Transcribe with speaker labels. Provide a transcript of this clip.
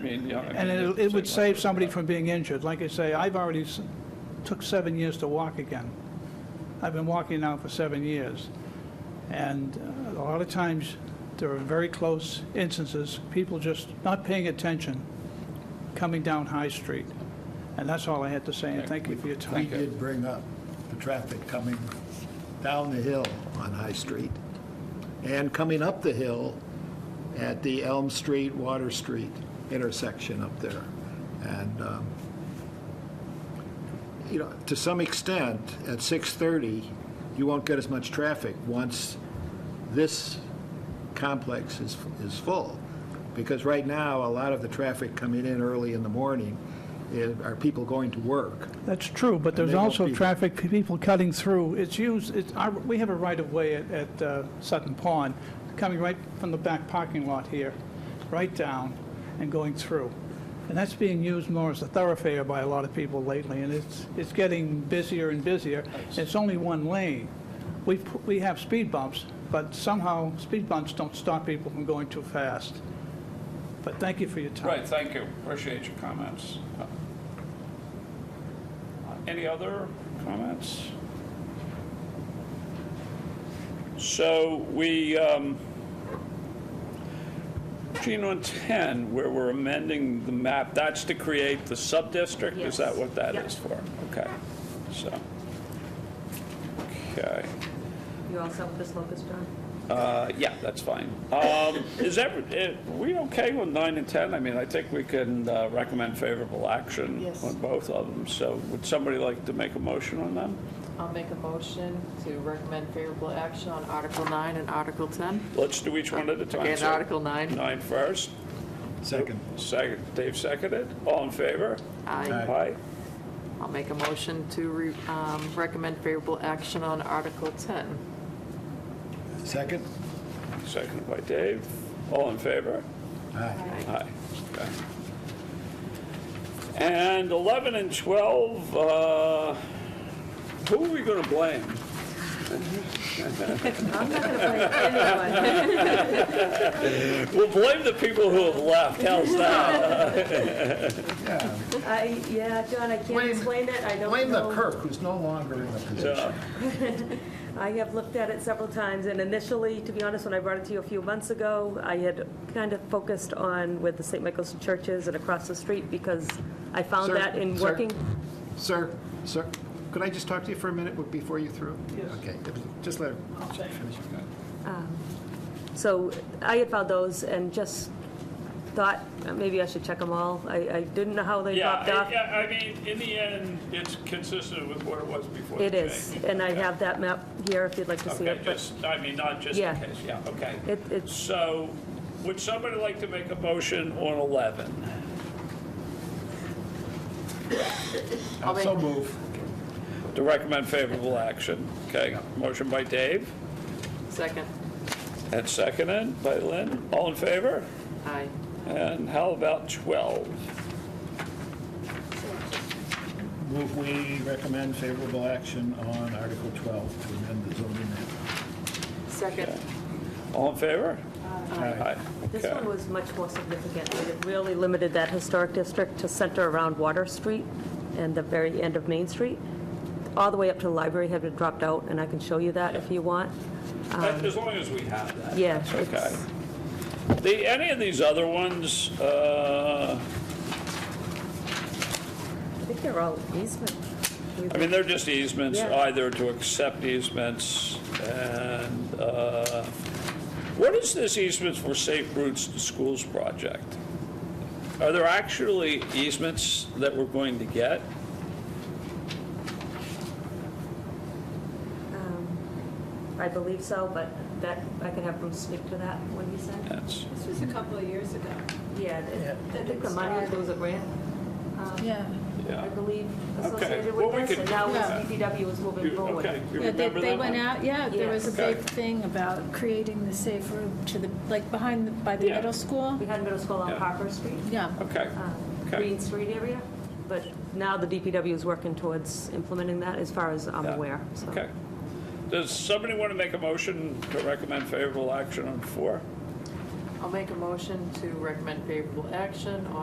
Speaker 1: mean, yeah. I
Speaker 2: And
Speaker 1: mean,
Speaker 2: it,
Speaker 1: it's
Speaker 2: it would
Speaker 1: the same
Speaker 2: save
Speaker 1: way.
Speaker 2: somebody from being injured. Like I say, I've already s- took seven years to walk again. I've been walking now for seven years. And uh, a lot of times, there are very close instances, people just not paying attention, coming down High Street. And that's all I had to say, and thank you for your
Speaker 1: Thank
Speaker 2: time.
Speaker 1: you.
Speaker 3: We did bring up the traffic coming down the hill on High Street and coming up the hill at the Elm Street, Water Street intersection up there. And, um, you know, to some extent, at 6:30, you won't get as much traffic once this complex is, is full. Because right now, a lot of the traffic coming in early in the morning is- are people going to work.
Speaker 2: That's true, but there's
Speaker 3: they won't
Speaker 2: also
Speaker 3: be-
Speaker 2: traffic, people cutting through. It's used, it's, our- we have a right-of-way at- at uh, Sutton Pond, coming right from the back parking lot here, right down and going through. And that's being used more as a thoroughfare by a lot of people lately, and it's, it's getting busier and busier. It's only one lane. We, pu- we have speed bumps, but somehow speed bumps don't stop people from going too fast. But thank you for your time.
Speaker 1: Right, thank you, appreciate your comments. Uh, Any other comments? So we, um, Gene, on 10, where we're amending the map, that's to create the sub-district? Is that
Speaker 4: Yes.
Speaker 1: what that
Speaker 4: Yep.
Speaker 1: is for? Okay, so, okay.
Speaker 4: You all set with this locust, John?
Speaker 1: Uh, Yeah, that's fine. Um, Is that, are we okay with nine and 10? I mean, I think we can uh, recommend favorable action
Speaker 5: Yes.
Speaker 1: on both of them. So would somebody like to make a motion on them?
Speaker 5: I'll make a motion to recommend favorable action on Article 9 and Article 10.
Speaker 1: Let's do each one at a time.
Speaker 5: Okay,
Speaker 1: So
Speaker 5: Article 9.
Speaker 1: Nine first.
Speaker 3: Second.
Speaker 1: Second, Dave seconded. All in favor?
Speaker 5: I,
Speaker 1: Aye.
Speaker 5: I'll make a motion to re- um, recommend favorable action on Article 10.
Speaker 3: Second?
Speaker 1: Seconded by Dave. All in favor?
Speaker 3: Aye.
Speaker 1: Aye. Okay. And 11 and 12, uh, who are we going to blame?
Speaker 4: I'm not going to blame anyone.
Speaker 1: We'll blame the people who have left. How's that?
Speaker 4: I, yeah, John, I can't
Speaker 3: Blame-
Speaker 4: explain it, I don't know.
Speaker 3: Blame the Kirk, who's no longer in the
Speaker 1: Yeah.
Speaker 3: position.
Speaker 4: I have looked at it several times, and initially, to be honest, when I brought it to you a few months ago, I had kind of focused on with the St. Michael's Church is and across the street, because I found
Speaker 3: Sir,
Speaker 4: that in
Speaker 3: sir.
Speaker 4: working.
Speaker 3: Sir, sir, could I just talk to you for a minute before you through? Yes. Okay, just let her finish.
Speaker 4: So I had found those and just thought, uh, maybe I should check them all. I, I didn't know how they
Speaker 1: Yeah,
Speaker 4: popped off.
Speaker 1: I- yeah, I mean, in the end, it's consistent with what it was before.
Speaker 4: It
Speaker 1: the
Speaker 4: is,
Speaker 1: change.
Speaker 4: and I
Speaker 1: Okay.
Speaker 4: have that map here if you'd like to see
Speaker 1: Okay,
Speaker 4: it. but-
Speaker 1: just, I mean, not just in
Speaker 4: Yeah.
Speaker 1: case, yeah, okay.
Speaker 4: It- it's-
Speaker 1: So, would somebody like to make a motion on 11?
Speaker 5: I'll
Speaker 3: So
Speaker 5: make-
Speaker 3: move.
Speaker 1: To recommend favorable action, okay? Motion by Dave,
Speaker 5: Second.
Speaker 1: and seconded by Lynn. All in favor?
Speaker 5: Aye.
Speaker 1: And how about 12?
Speaker 3: Move, we recommend favorable action on Article 12 to amend the zoning map.
Speaker 5: Second.
Speaker 1: All in favor? Aye.
Speaker 4: Uh, This
Speaker 1: Okay.
Speaker 4: one was much more significant. It really limited that historic district to center around Water Street and the very end of Main Street. All the way up to the library had been dropped out, and I can show you that if you want. Um,
Speaker 1: As long as we have that.
Speaker 4: Yeah,
Speaker 1: that's
Speaker 4: it's-
Speaker 1: okay. The, any of these other ones, uh,
Speaker 4: I think they're all easement.
Speaker 1: I mean, they're just easements,
Speaker 4: Yeah.
Speaker 1: either to accept easements and, uh, what is this easements for Safe Routes to Schools project? Are there actually easements that we're going to get?
Speaker 4: I believe so, but that, I could have Bruce speak to that, what he said.
Speaker 1: That's,
Speaker 6: This was a couple of years ago.
Speaker 4: Yeah, they- I think the money, there was a grant,
Speaker 6: Yeah.
Speaker 1: yeah.
Speaker 4: I believe,
Speaker 1: Okay,
Speaker 4: associated
Speaker 1: well,
Speaker 4: with
Speaker 1: we
Speaker 4: this,
Speaker 1: could-
Speaker 4: and now
Speaker 6: Yeah.
Speaker 4: it's DPW is moving forward.
Speaker 1: Okay, you
Speaker 6: Yeah, they,
Speaker 1: remember
Speaker 6: they
Speaker 1: that
Speaker 6: went
Speaker 1: one?
Speaker 6: out, yeah, there was a
Speaker 1: Yeah.
Speaker 6: big thing about creating the safe route to the, like, behind, the by the
Speaker 1: Yeah.
Speaker 6: middle school.
Speaker 4: We had middle school on
Speaker 1: Yeah.
Speaker 4: Harper Street.
Speaker 6: Yeah,
Speaker 1: Okay,
Speaker 4: um,
Speaker 1: okay.
Speaker 4: Green Street area, but now the DPW is working towards implementing that, as far as I'm
Speaker 1: Yeah.
Speaker 4: aware, so.
Speaker 1: Okay. Does somebody want to make a motion to recommend favorable action on four?
Speaker 5: I'll make a motion to recommend favorable action on